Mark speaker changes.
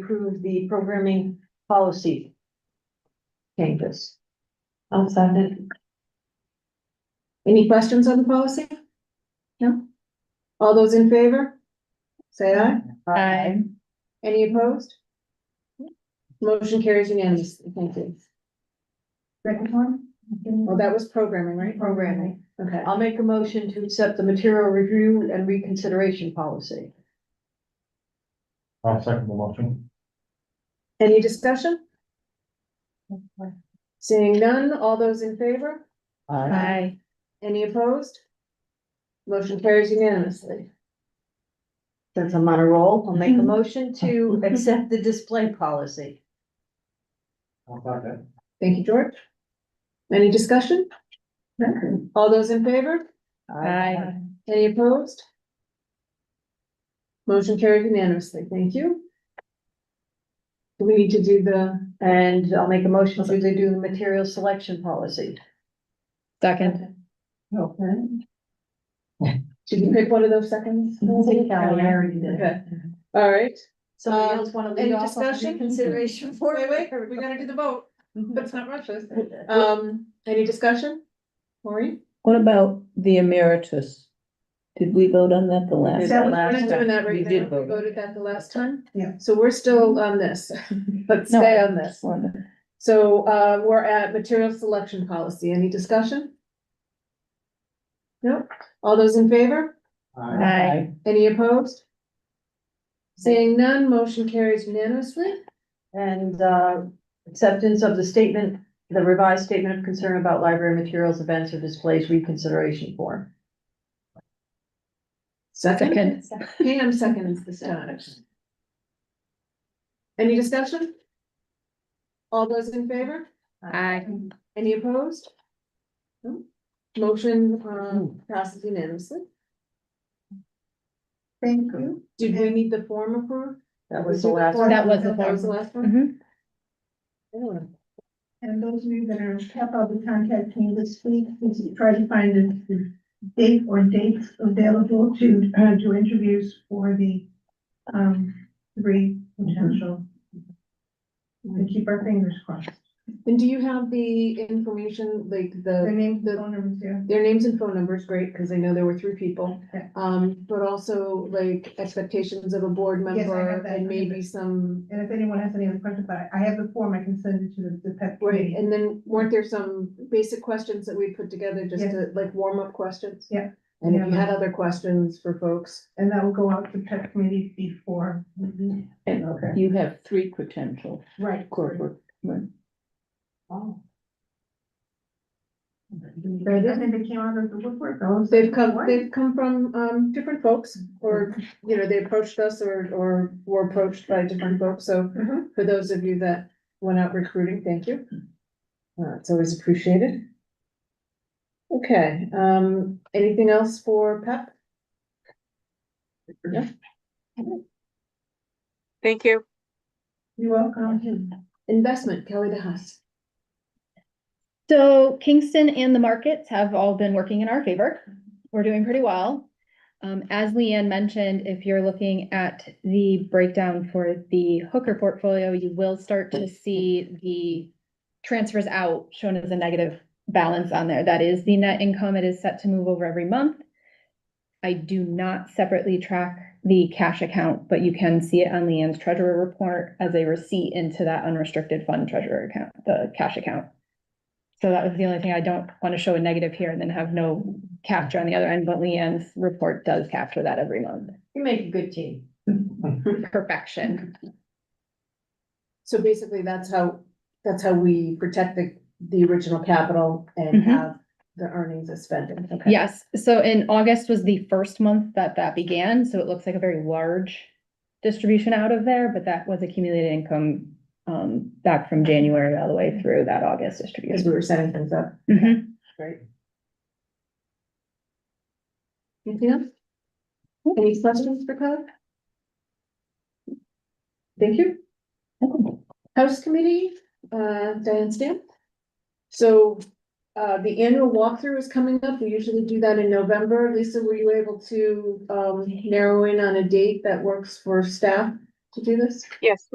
Speaker 1: approve the programming policy changes. I'll second.
Speaker 2: Any questions on the policy? No? All those in favor? Say aye.
Speaker 3: Aye.
Speaker 2: Any opposed? Motion carries unanimously. Thank you.
Speaker 4: Second one?
Speaker 2: Well, that was programming, right?
Speaker 4: Programming.
Speaker 2: Okay.
Speaker 1: I'll make a motion to accept the material review and reconsideration policy.
Speaker 5: I'll second the motion.
Speaker 2: Any discussion? Seeing none, all those in favor?
Speaker 3: Aye.
Speaker 2: Any opposed? Motion carries unanimously.
Speaker 1: Since I'm on a roll, I'll make a motion to accept the display policy.
Speaker 5: I'll second.
Speaker 2: Thank you, George. Any discussion? All those in favor?
Speaker 3: Aye.
Speaker 2: Any opposed? Motion carried unanimously. Thank you. Do we need to do the,
Speaker 1: And I'll make a motion to do the material selection policy.
Speaker 3: Second.
Speaker 2: should you pick one of those seconds? Okay. All right.
Speaker 1: Somebody else wanna lead
Speaker 2: Any
Speaker 1: off on
Speaker 2: discussion?
Speaker 1: consideration for?
Speaker 2: Wait, wait, we gotta do the vote. Let's not rush this. Um, any discussion? Maureen?
Speaker 6: What about the emeritus? Did we vote on that the last?
Speaker 2: We're not
Speaker 6: time.
Speaker 2: doing that
Speaker 6: We
Speaker 2: right
Speaker 6: did
Speaker 2: now. We
Speaker 6: vote.
Speaker 2: voted that the last time.
Speaker 4: Yeah.
Speaker 2: So we're still on this. Let's
Speaker 6: No,
Speaker 2: stay on
Speaker 6: I
Speaker 2: this.
Speaker 6: just wondered.
Speaker 2: So uh, we're at material selection policy. Any discussion? No? All those in favor?
Speaker 5: Aye.
Speaker 2: Any opposed? Seeing none, motion carries unanimously.
Speaker 1: And uh, acceptance of the statement, the revised statement of concern about library materials, events or displays reconsideration form.
Speaker 2: Second.
Speaker 3: Second.
Speaker 2: Pam seconds this time. Any discussion? All those in favor?
Speaker 3: Aye.
Speaker 2: Any opposed? No? Motion um, passes unanimously.
Speaker 4: Thank you.
Speaker 2: Did we need the form approved?
Speaker 1: That was the last. one.
Speaker 3: That was the
Speaker 2: That was the
Speaker 3: form.
Speaker 2: last one?
Speaker 4: And those of you that are kept up with contact me this week, please try to find a date or dates available to, uh, do interviews for the, um, three potential. And keep our fingers crossed.
Speaker 2: And do you have the information, like
Speaker 4: The
Speaker 2: the,
Speaker 4: name, the phone numbers here.
Speaker 2: their names and phone numbers, great, because I know there were three people.
Speaker 4: Okay.
Speaker 2: Um, but also like expectations of a board
Speaker 4: Yes, I have
Speaker 2: member
Speaker 4: that.
Speaker 2: and maybe some,
Speaker 4: And if anyone has any other questions, but I have the form, I can send it to the, the pet
Speaker 2: right,
Speaker 4: committee.
Speaker 2: and then weren't there some basic questions that we put together just
Speaker 4: Yes.
Speaker 2: to, like warm-up questions?
Speaker 4: Yeah.
Speaker 2: And if you had other questions for folks?
Speaker 4: And that will go out to pet committee before.
Speaker 6: And you have three potential
Speaker 4: Right.
Speaker 6: corporate.
Speaker 2: Oh.
Speaker 4: They didn't, they came out of the woodwork. I was
Speaker 2: They've
Speaker 4: like,
Speaker 2: come,
Speaker 4: "What?"
Speaker 2: they've come from, um, different folks, or, you know, they approached us or, or were approached by different folks, so
Speaker 1: Mm-hmm.
Speaker 4: Mhm.
Speaker 2: for those of you that went out recruiting, thank you. Uh, it's always appreciated. Okay, um, anything else for Pep?
Speaker 7: Thank you.
Speaker 4: You're welcome.
Speaker 2: Investment, Kelly DeHaas.
Speaker 3: So Kingston and the markets have all been working in our favor. We're doing pretty well. Um, as Leanne mentioned, if you're looking at the breakdown for the hooker portfolio, you will start to see the transfers out shown as a negative balance on there. That is the net income. It is set to move over every month. I do not separately track the cash account, but you can see it on Leanne's treasurer report as a receipt into that unrestricted fund treasurer account, the cash account. So that was the only thing I don't want to show a negative here and then have no capture on the other end, but Leanne's report does capture that every month.
Speaker 1: You make a good team.
Speaker 3: Perfection.
Speaker 2: So basically, that's how, that's how we protect the, the original capital and
Speaker 1: Mm-hmm.
Speaker 3: Mhm.
Speaker 2: have the earnings as spending. Okay.
Speaker 3: Yes, so in August was the first month that that began, so it looks like a very large distribution out of there, but that was accumulated income um back from January all the way through that August
Speaker 2: As
Speaker 3: distribution.
Speaker 2: we were setting things up,
Speaker 3: Mhm.
Speaker 2: right? Anything else? Any questions for Kelly? Thank you. House Committee, uh, Diane Stamp. So, uh, the annual walkthrough is coming up. We usually do that in November. Lisa, were you able to, um, narrow in on a date that works for staff to do this?
Speaker 7: Yes.